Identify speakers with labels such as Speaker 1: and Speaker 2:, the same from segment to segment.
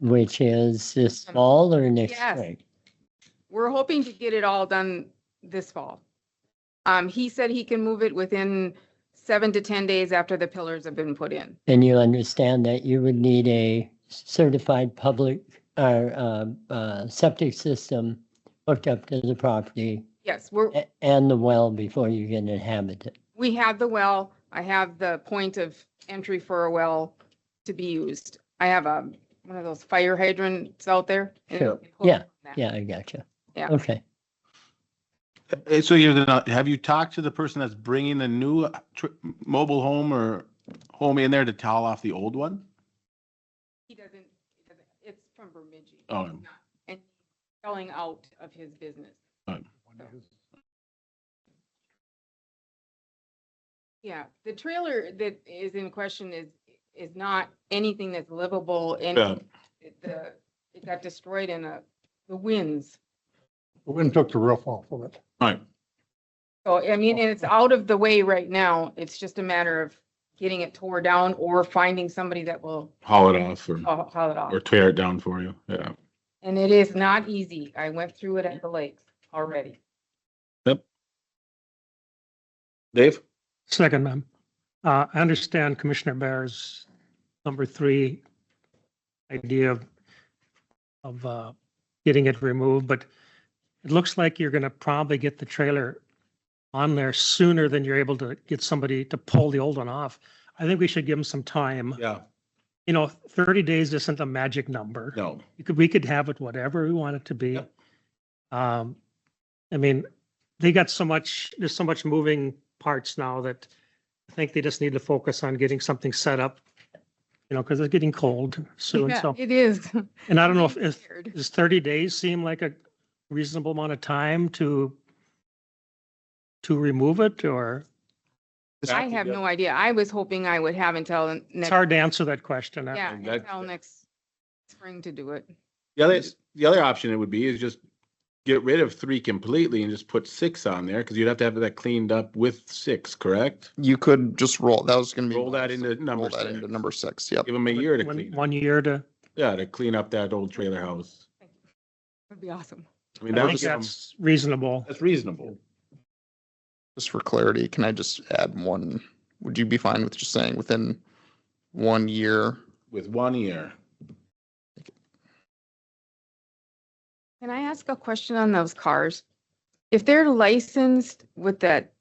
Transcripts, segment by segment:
Speaker 1: which is this fall or next
Speaker 2: Yes.
Speaker 1: spring?
Speaker 2: We're hoping to get it all done this fall. Um, he said he can move it within seven to 10 days after the pillars have been put in.
Speaker 1: And you understand that you would need a certified public or uh, uh, septic system hooked up to the property
Speaker 2: Yes, we're,
Speaker 1: a- and the well before you can inhabit it.
Speaker 2: we have the well. I have the point of entry for a well to be used. I have a, one of those fire hydrants out there. and
Speaker 1: Sure.
Speaker 2: we hook
Speaker 1: Yeah,
Speaker 2: that.
Speaker 1: Yeah, I gotcha.
Speaker 2: Yeah.
Speaker 1: Okay.
Speaker 3: Uh, So you're not, have you talked to the person that's bringing the new uh, tr- mobile home or home in there to towel off the old one?
Speaker 2: He doesn't, he doesn't- it's from Bemidji.
Speaker 3: Oh.
Speaker 2: It's not- And selling out of his business.
Speaker 3: Oh.
Speaker 2: Yeah, the trailer that is in question is, is not anything that's livable
Speaker 3: Yeah.
Speaker 2: and it- the, it got destroyed in a, the winds.
Speaker 4: The wind took the roof off of it.
Speaker 3: Right.
Speaker 2: So, I mean, and it's out of the way right now. It's just a matter of getting it tore down or finding somebody that will
Speaker 3: Haul it off
Speaker 5: Oh.
Speaker 3: or,
Speaker 2: haul haul it off.
Speaker 3: or tear it down for you. Yeah.
Speaker 2: And it is not easy. I went through it at the lakes already.
Speaker 3: Dave?
Speaker 5: Second, ma'am. Uh, I understand Commissioner Bear's number three idea of, of, uh, getting it removed, but it looks like you're gonna probably get the trailer on there sooner than you're able to get somebody to pull the old one off. I think we should give them some time.
Speaker 3: Yeah.
Speaker 5: You know, thirty days isn't a magic number
Speaker 3: No.
Speaker 5: you could, we could have it whatever we want it to be.
Speaker 3: Yep.
Speaker 5: Um, I mean, they got so much, there's so much moving parts now that I think they just need to focus on getting something set up. You know, because it's getting cold soon,
Speaker 2: Yeah,
Speaker 5: so,
Speaker 2: It is.
Speaker 5: and I don't know if, if,
Speaker 2: Weird.
Speaker 5: does thirty days seem like a reasonable amount of time to to remove it, or
Speaker 2: I have no idea. I was hoping I would have until
Speaker 5: it's
Speaker 2: next,
Speaker 5: hard to answer that question. I-
Speaker 2: yeah,
Speaker 3: That-
Speaker 2: until next spring to do it.
Speaker 3: The other, the other option it would be is just get rid of three completely and just put six on there because you'd have to have that cleaned up with six, correct?
Speaker 6: You could just roll, that was gonna be.
Speaker 3: Roll that into number
Speaker 6: Roll that into
Speaker 3: six.
Speaker 6: number six, yep.
Speaker 3: Give them a year to
Speaker 5: One-
Speaker 3: clean, it.
Speaker 5: One year to,
Speaker 3: yeah, to clean up that old trailer house.
Speaker 2: That'd be awesome.
Speaker 3: I
Speaker 5: I
Speaker 3: mean, that um, would
Speaker 5: think
Speaker 3: give 'em-
Speaker 5: that's reasonable.
Speaker 3: that's reasonable.
Speaker 6: Just for clarity, can I just add one? Would you be fine with just saying within one year?
Speaker 3: with one year.
Speaker 2: Can I ask a question on those cars? If they're licensed with that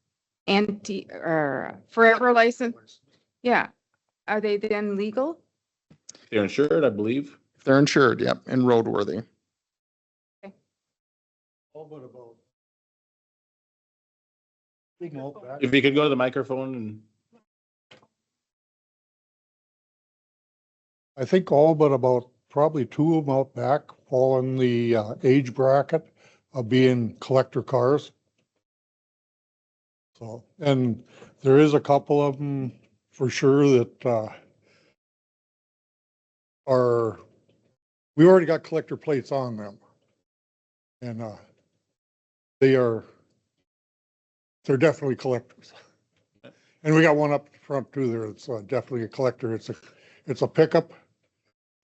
Speaker 2: anti, or forever license, yeah, are they then legal?
Speaker 3: They're insured, I believe.
Speaker 6: If they're insured, yep, and roadworthy.
Speaker 4: All but about. Big malt back.
Speaker 3: If you could go to the microphone and
Speaker 4: I think all but about probably two of them out back fall in the uh, age bracket of being collector cars. So, and there is a couple of them for sure that uh, are, we already got collector plates on them. And uh, they are, they're definitely collectors. And we got one up front too there. It's uh, definitely a collector. It's a, it's a pickup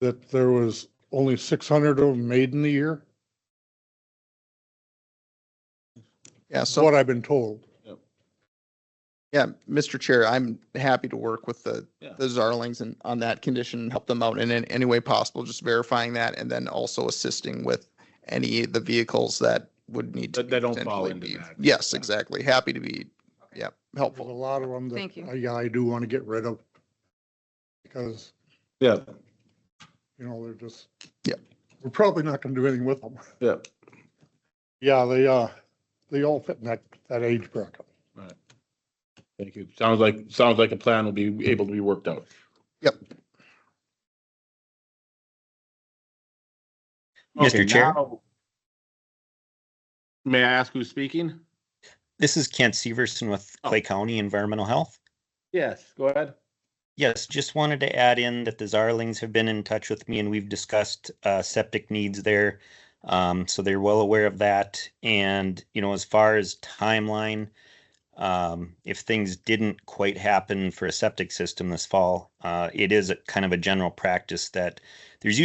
Speaker 4: that there was only six hundred of them made in the year,
Speaker 6: Yeah,
Speaker 4: is
Speaker 6: so,
Speaker 4: what I've been told.
Speaker 6: yeah, Mr. Chair, I'm happy to work with the,
Speaker 3: Yeah.
Speaker 6: the Zarlings and on that condition, help them out in an- any way possible, just verifying that and then also assisting with any of the vehicles that would need to.
Speaker 3: That- that don't fall
Speaker 6: potentially
Speaker 3: into
Speaker 6: be-
Speaker 3: that.
Speaker 6: Yes, exactly. Happy to be,
Speaker 2: Okay.
Speaker 6: yep,
Speaker 4: There's a
Speaker 6: helpful.
Speaker 4: lot of them that,
Speaker 2: Thank you.
Speaker 4: I- yeah, I do want to get rid of. Because,
Speaker 3: yeah,
Speaker 4: you know, they're just.
Speaker 6: Yep.
Speaker 4: We're probably not going to do anything with them.
Speaker 3: yeah.
Speaker 4: Yeah, they, uh, they all fit in that, that age bracket.
Speaker 3: Thank you. Sounds like, sounds like a plan will be able to be worked out.
Speaker 6: Yep.
Speaker 7: Mr.
Speaker 3: Okay,
Speaker 7: Chair?
Speaker 3: now- May I ask who's speaking?
Speaker 7: This is Kent Severson with
Speaker 3: Oh.
Speaker 7: Clay County Environmental Health.
Speaker 3: Yes, go ahead.
Speaker 7: Yes, just wanted to add in that the Zarlings have been in touch with me and we've discussed uh, septic needs there. Um, so they're well aware of that. And, you know, as far as timeline, um, if things didn't quite happen for a septic system this fall, uh, it is a kind of a general practice that there's usually